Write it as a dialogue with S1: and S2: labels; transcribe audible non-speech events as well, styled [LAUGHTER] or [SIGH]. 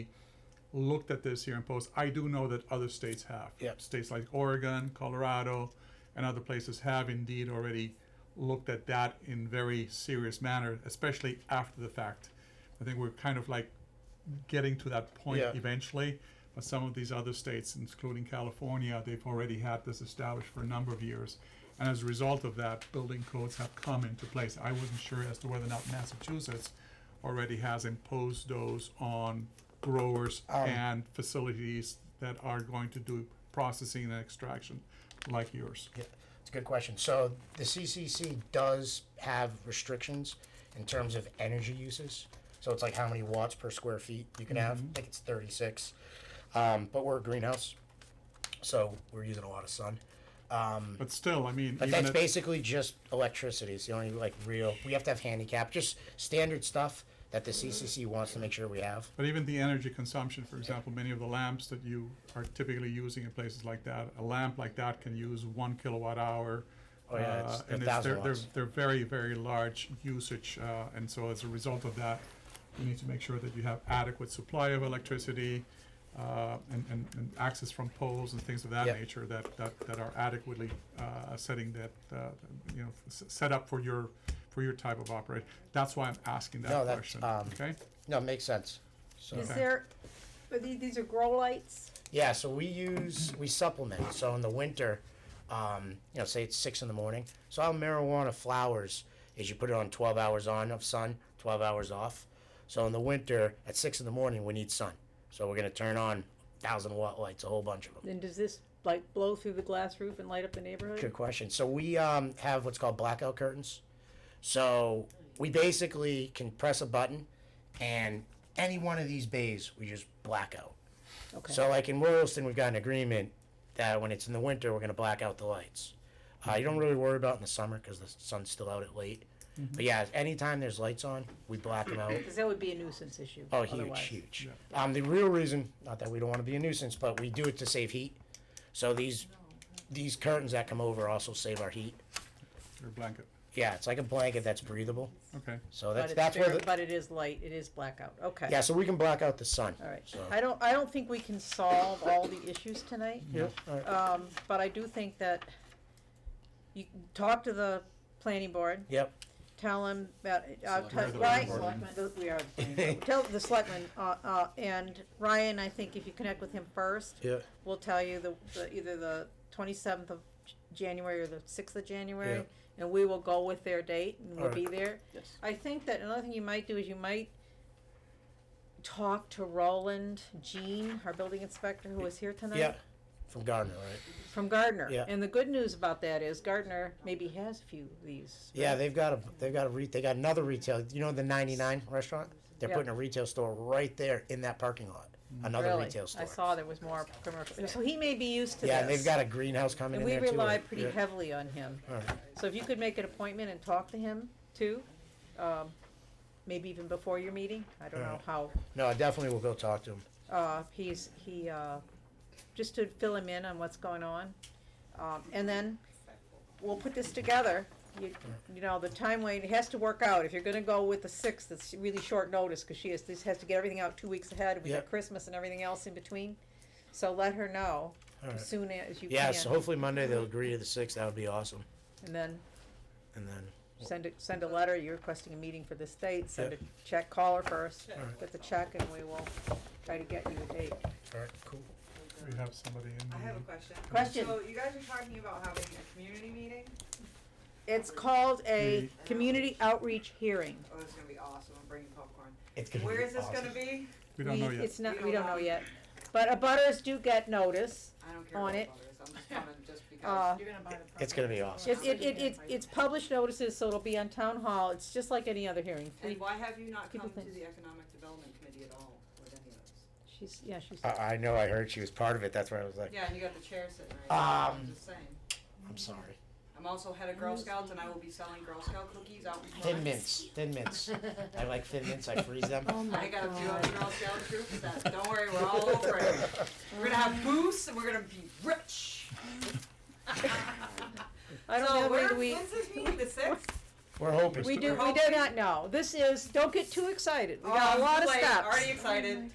S1: looked at this here and posed. I do know that other states have.
S2: Yep.
S1: States like Oregon, Colorado, and other places have indeed already looked at that in very serious manner, especially after the fact. I think we're kind of like getting to that point
S2: Yeah.
S1: eventually. But some of these other states, including California, they've already had this established for a number of years. And as a result of that, building codes have come into place. I wasn't sure as to whether or not Massachusetts already has imposed those on growers
S2: Um,
S1: and facilities that are going to do processing and extraction like yours.
S2: Yeah, it's a good question. So the CCC does have restrictions in terms of energy uses. So it's like how many watts per square feet you can have. I think it's 36. Um, but we're a greenhouse, so we're using a lot of sun. Um,
S1: But still, I mean,
S2: but
S1: even
S2: that's
S1: at-
S2: basically just electricity. It's the only like real. We have to have handicap, just standard stuff that the CCC wants to make sure we have.
S1: But even the energy consumption, for example, many of the lamps that you are typically using in places like that, a lamp like that can use one kilowatt hour.
S2: Oh, yeah, it's-
S1: uh, and
S2: they're
S1: it's, they're,
S2: 1000
S1: they're,
S2: watts.
S1: they're very, very large usage, uh, and so as a result of that, you need to make sure that you have adequate supply of electricity, uh, and, and, and access from poles and things of that
S2: Yep.
S1: nature that, that, that are adequately, uh, setting that, uh, you know, s- set up for your, for your type of operation. That's why I'm asking
S2: No,
S1: that
S2: that's,
S1: question,
S2: um,
S1: okay?
S2: No, it makes sense. So.
S3: Is
S1: Okay.
S3: there, are these, these are grow lights?
S2: Yeah, so we use we supplement. So in the winter, um, you know, say it's six in the morning. So how marijuana flowers is you put it on twelve hours on of sun, twelve hours off. So in the winter at six in the morning we need sun. So we're gonna turn on thousand watt lights, a whole bunch of them.
S3: Then does this like blow through the glass roof and light up the
S2: Good
S3: neighborhood?
S2: question. So we um, have what's called blackout curtains. So we basically can press a button, and any one of these bays we just black out.
S3: Okay.
S2: So like in Royalston, we've got an agreement that when it's in the winter, we're gonna black out the lights. Uh, you don't
S3: Mm-hmm.
S2: really worry about in the summer because the sun's still out at late. But yeah, anytime there's lights on, we black them
S3: [COUGHS]
S2: out.
S3: Because that would be a nuisance issue.
S2: Oh, huge,
S3: otherwise.
S2: huge. Um, the real reason, not that we don't want to be a nuisance, but we do it to save heat. So these these curtains that come over also save our heat.
S1: Your blanket,
S2: Yeah, it's like a blanket that's breathable.
S1: okay?
S2: So
S3: But
S2: that's
S3: it's
S2: that's where
S3: very,
S2: the,
S3: but it is light, it is blackout, okay.
S2: yeah. So we can black out the sun.
S3: All right,
S2: So,
S3: I don't, I don't think we can solve all the issues tonight.
S2: yeah. All right.
S3: Um, but I do think that you can talk to the planning board,
S2: Yep.
S3: tell them about, uh,
S1: We're the
S3: Ryan,
S1: planning
S3: the- we are, the planning board. tell the selectmen, uh, uh, and Ryan, I think if you connect with him first,
S2: Yeah.
S3: we'll tell you the, the, either the twenty-seventh of J- January or the sixth of January, and we will go with their date and we'll be there.
S4: Yes.
S3: I think that another thing you might do is you might talk to Roland Jean, our building inspector who was here tonight.
S2: Yeah. From Gardner, right?
S3: From Gardner.
S2: Yeah.
S3: And the good news about that is Gardner maybe has a few of these.
S2: Yeah,
S3: right?
S2: they've got a they've got a re- they got another retail. You know the 99 restaurant? They're
S3: Yeah.
S2: putting a retail store right there in that parking lot. Another
S3: Really.
S2: retail store.
S3: I saw there was more commercial, so he may be used to this.
S2: yeah, and they've got a greenhouse coming
S3: And
S2: in
S3: we
S2: there too.
S3: rely
S2: right?
S3: pretty
S2: Yeah.
S3: heavily on him.
S2: All right.
S3: So if you could make an appointment and talk to him too, um, maybe even before your meeting, I don't know
S2: Alright.
S3: how,
S2: No, I definitely will go talk to him.
S3: uh, he's, he, uh, just to fill him in on what's going on. Um, and then we'll put this together, you, you know, the timeline, it has to work out, if you're gonna go with the sixth, it's really short notice, cause she has, this has to get everything out two weeks ahead, we
S2: Yep.
S3: got Christmas and everything else in between. So let her know
S2: Alright.
S3: as soon as you
S2: Yeah,
S3: can,
S2: so hopefully Monday they'll agree to the sixth. That would be awesome.
S3: and then
S2: And then
S3: Send a, send a letter, you're requesting a meeting for this date, send a
S2: Yep.
S3: check, call her first,
S2: Alright.
S3: get the check, and we will try to get you a date.
S2: all right, cool.
S1: We have somebody in
S5: I have a
S1: the,
S5: question.
S3: Question.
S5: So you guys are talking about having a community meeting?
S3: It's called a
S1: Mm.
S3: community outreach hearing.
S5: Oh, this is gonna be awesome. I'm bringing popcorn.
S2: It's gonna
S5: Where
S2: be
S5: is this
S2: awesome.
S5: gonna be?
S1: we don't know yet.
S3: It's not,
S5: We
S3: we
S5: don't
S3: don't know
S5: know.
S3: yet, but abutters do get notice,
S5: I don't care
S3: On
S5: about
S3: it.
S5: others. I'm
S3: [LAUGHS]
S5: just coming just
S3: uh,
S5: because.
S4: You're gonna buy the
S2: It's gonna be awesome.
S3: it, it, it, it's, it's published notices, so it'll be on town hall, it's just like any other hearing, three,
S5: And why have you not
S3: people
S5: come to
S3: think-
S5: the economic development committee at all with any of us?
S3: she's, yeah, she's,
S1: Uh,
S2: I, I know. I heard she was part of it. That's why I was like,
S5: Yeah, and you got the chair sitting right there.
S2: Um,
S5: I'm just saying.
S2: I'm sorry.
S5: I'm also head of Girl Scouts and I will be selling Girl Scout cookies out in front.
S2: Thin mints, thin mints. I like thin mints. I freeze them.
S5: I got a few other Girl Scout troops that, don't worry, we're all over it. We're gonna have booths and we're gonna be rich.
S3: [LAUGHS] I don't
S5: So
S3: know
S5: where-
S3: whether we,
S5: When's [LAUGHS] this meeting, the sixth?
S2: [LAUGHS] We're hoping.
S3: we do, we do not know, this is, don't get too excited, we got a lot of
S5: Like,
S3: steps.
S5: Oh, Already excited.